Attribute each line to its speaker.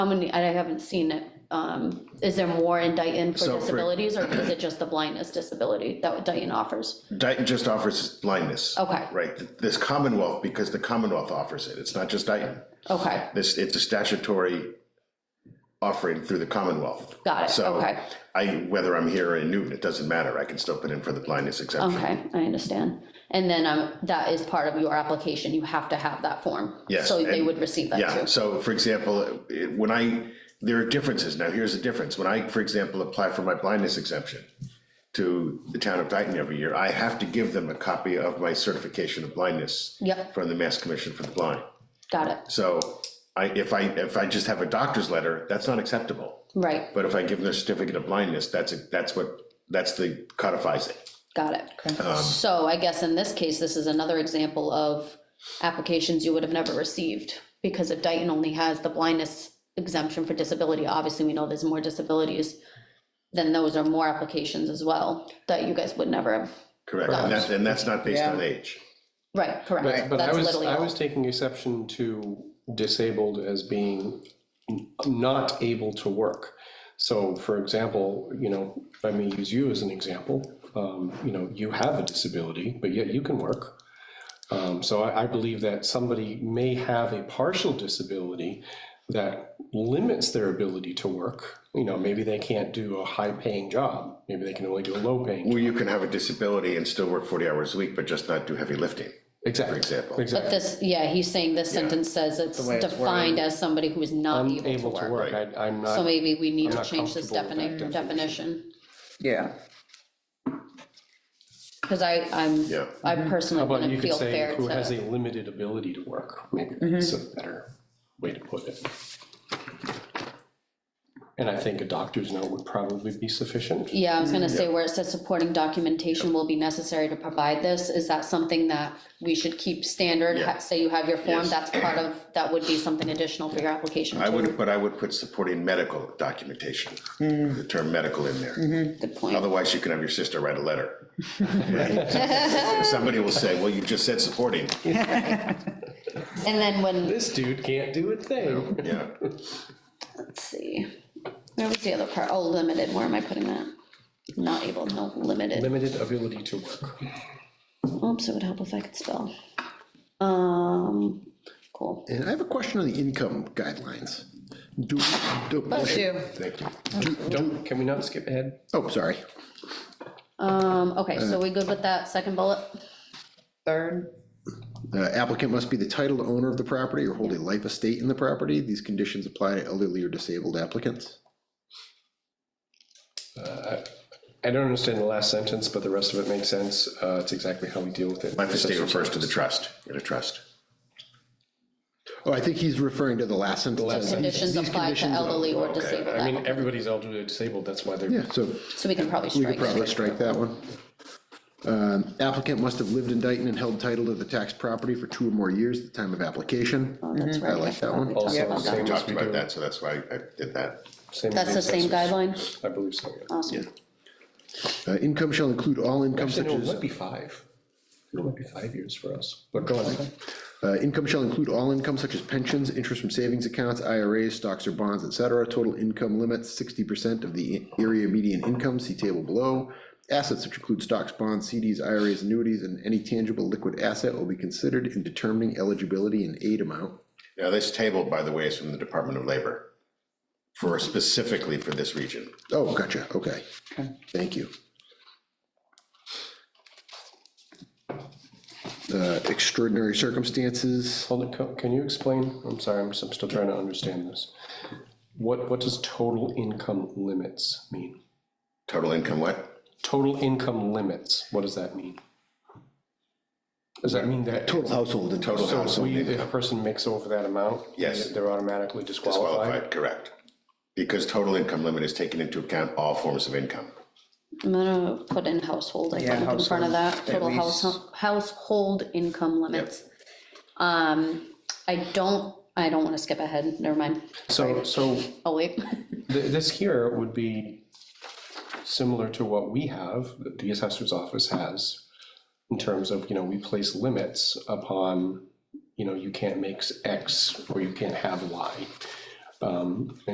Speaker 1: How many, I haven't seen it. Um, Is there more in Dayton for
Speaker 2: So for-
Speaker 1: disabilities, or is it just the blindness disability that what Dayton offers?
Speaker 2: Dayton just offers blindness.
Speaker 1: Okay.
Speaker 2: Right, this Commonwealth, because the Commonwealth offers it, it's not just Dayton.
Speaker 1: Okay,
Speaker 2: This, it's a statutory offering through the Commonwealth.
Speaker 1: Got it,
Speaker 2: So
Speaker 1: okay.
Speaker 2: I, whether I'm here or in Newton, it doesn't matter, I can still put in for the blindness exemption.
Speaker 1: okay, I understand. And then um, that is part of your application, you have to have that form.
Speaker 2: Yes,
Speaker 1: So they
Speaker 2: and-
Speaker 1: would receive that
Speaker 2: Yeah,
Speaker 1: too.
Speaker 2: so for example, it- when I, there are differences, now here's the difference, when I, for example, apply for my blindness exemption to the town of Dayton every year, I have to give them a copy of my certification of blindness
Speaker 1: Yep,
Speaker 2: from the Mass Commission for the Blind.
Speaker 1: got it,
Speaker 2: So I, if I, if I just have a doctor's letter, that's not acceptable.
Speaker 1: right,
Speaker 2: But if I give them a certificate of blindness, that's, a- that's what, that's the codifies it.
Speaker 1: got it. So I guess in this case, this is another example of applications you would have never received. Because if Dayton only has the blindness exemption for disability, obviously we know there's more disabilities, then those are more applications as well that you guys would never have,
Speaker 2: Correct, and that's, and that's not based
Speaker 3: Yeah.
Speaker 2: on age.
Speaker 1: right, correct.
Speaker 3: Right.
Speaker 4: But I
Speaker 1: That's
Speaker 4: was,
Speaker 1: literally
Speaker 4: I
Speaker 1: all.
Speaker 4: was taking exception to disabled as being n- not able to work. So for example, you know, if I may use you as an example, um, you know, you have a disability, but yet you can work. Um, so I, I believe that somebody may have a partial disability that limits their ability to work. You know, maybe they can't do a high-paying job, maybe they can only do a low-paying. job.
Speaker 2: Well, you can have a disability and still work forty hours a week, but just not do heavy lifting, for
Speaker 4: Exactly,
Speaker 2: example.
Speaker 4: exactly.
Speaker 1: This, yeah, he's saying this sentence says it's
Speaker 3: way it's
Speaker 1: defined as somebody who is not able to
Speaker 4: Unable to
Speaker 1: work.
Speaker 4: work, I, I'm
Speaker 1: So
Speaker 4: not
Speaker 1: maybe we need
Speaker 4: I'm
Speaker 1: to
Speaker 4: not
Speaker 1: change this
Speaker 4: comfortable with
Speaker 1: defini-
Speaker 4: that
Speaker 1: definition,
Speaker 3: Yeah,
Speaker 1: because I, I'm, I
Speaker 2: Yeah.
Speaker 4: Mm-hmm. How
Speaker 1: personally
Speaker 4: about you
Speaker 1: wouldn't
Speaker 4: could
Speaker 1: feel
Speaker 4: say
Speaker 1: fair
Speaker 4: who has
Speaker 1: to. Mm-hmm.
Speaker 4: a limited ability to work, maybe that's a better way to put it. And I think a doctor's note would probably be sufficient.
Speaker 1: Yeah, I was gonna say where it says supporting documentation will be necessary to provide this, is that something that we should keep standard?
Speaker 2: Yeah.
Speaker 1: Ha- Say you have your form,
Speaker 2: Yes.
Speaker 1: that's part of, that would be something additional for your application
Speaker 2: I
Speaker 1: too,
Speaker 2: would, but I would put supporting medical documentation, the term medical in there.
Speaker 1: good point.
Speaker 2: Otherwise, you can have your sister write a letter. Somebody will say, well, you just said supporting,
Speaker 1: And then when,
Speaker 4: This dude can't do a thing.
Speaker 2: yeah.
Speaker 1: let's see, where was the other part, oh, limited, where am I putting that? Not able, no, limited.
Speaker 4: Limited ability to work.
Speaker 1: Oops, it would help if I could spell. Um, cool.
Speaker 5: And I have a question on the income guidelines. Do, do,
Speaker 3: bless you.
Speaker 2: Thank you.
Speaker 4: Don't, can we not skip ahead?
Speaker 5: oh, sorry.
Speaker 1: Um, okay, so we good with that second bullet?
Speaker 3: Third,
Speaker 5: The applicant must be the titled owner of the property or hold a life estate in the property. These conditions apply to elderly or disabled applicants.
Speaker 4: I don't understand the last sentence, but the rest of it makes sense. Uh, it's exactly how we deal with it.
Speaker 2: Life estate refers to the trust, in a trust.
Speaker 5: Oh, I think he's referring to the last sentence.
Speaker 1: Conditions
Speaker 5: These
Speaker 1: apply to
Speaker 5: conditions-
Speaker 1: elderly or disabled
Speaker 4: I mean,
Speaker 1: applicants,
Speaker 4: everybody's elderly or disabled, that's why they're,
Speaker 5: Yeah, so
Speaker 1: so we can probably
Speaker 5: we could
Speaker 1: strike
Speaker 5: probably
Speaker 1: that.
Speaker 5: strike that one. Um, Applicant must have lived in Dayton and held title to the taxed property for two or more years at the time of application.
Speaker 1: That's
Speaker 5: Mm-hmm. I
Speaker 1: right.
Speaker 5: like that one.
Speaker 2: We
Speaker 4: also same as
Speaker 2: talked
Speaker 4: we
Speaker 2: about
Speaker 4: do.
Speaker 2: that, so that's why I did that.
Speaker 4: same as
Speaker 1: That's the same
Speaker 4: assessors.
Speaker 1: guideline?
Speaker 4: I believe so, yeah.
Speaker 1: Awesome.
Speaker 5: Uh, Income shall include all income
Speaker 4: Actually,
Speaker 5: such
Speaker 4: no, it
Speaker 5: as.
Speaker 4: might be five. It might be five years for us, but go on.
Speaker 5: Uh, Income shall include all income such as pensions, interest from savings accounts, IRAs, stocks or bonds, et cetera. Total income limits sixty percent of the area median income, see table below. Assets which include stocks, bonds, CDs, IRAs, annuities, and any tangible liquid asset will be considered in determining eligibility and aid amount.
Speaker 2: Now, this table, by the way, is from the Department of Labor for specifically for this region.
Speaker 5: Oh, gotcha, okay. Thank you. Uh, Extraordinary circumstances,
Speaker 4: Hold it, co- can you explain, I'm sorry, I'm, s- I'm still trying to understand this. What, what does total income limits mean?
Speaker 2: Total income what?
Speaker 4: Total income limits, what does that mean? Does that mean that?
Speaker 5: total household income.
Speaker 2: Total
Speaker 4: So if
Speaker 2: household
Speaker 4: we,
Speaker 2: income
Speaker 4: if a person makes over that amount?
Speaker 2: Yes.
Speaker 4: They're automatically disqualified?
Speaker 2: qualified, correct. Because total income limit is taken into account all forms of income.
Speaker 1: I'm gonna put in household, I
Speaker 3: Yeah,
Speaker 1: think, in front of
Speaker 3: household,
Speaker 1: that,
Speaker 3: at
Speaker 1: total
Speaker 3: least.
Speaker 1: household, household income limits. Um, I don't, I don't wanna skip ahead, never mind,
Speaker 4: So, so
Speaker 1: oh wait,
Speaker 4: Th- This here would be similar to what we have, that the assessor's office has, in terms of, you know, we place limits upon, you know, you can't make X or you can't have Y. Um,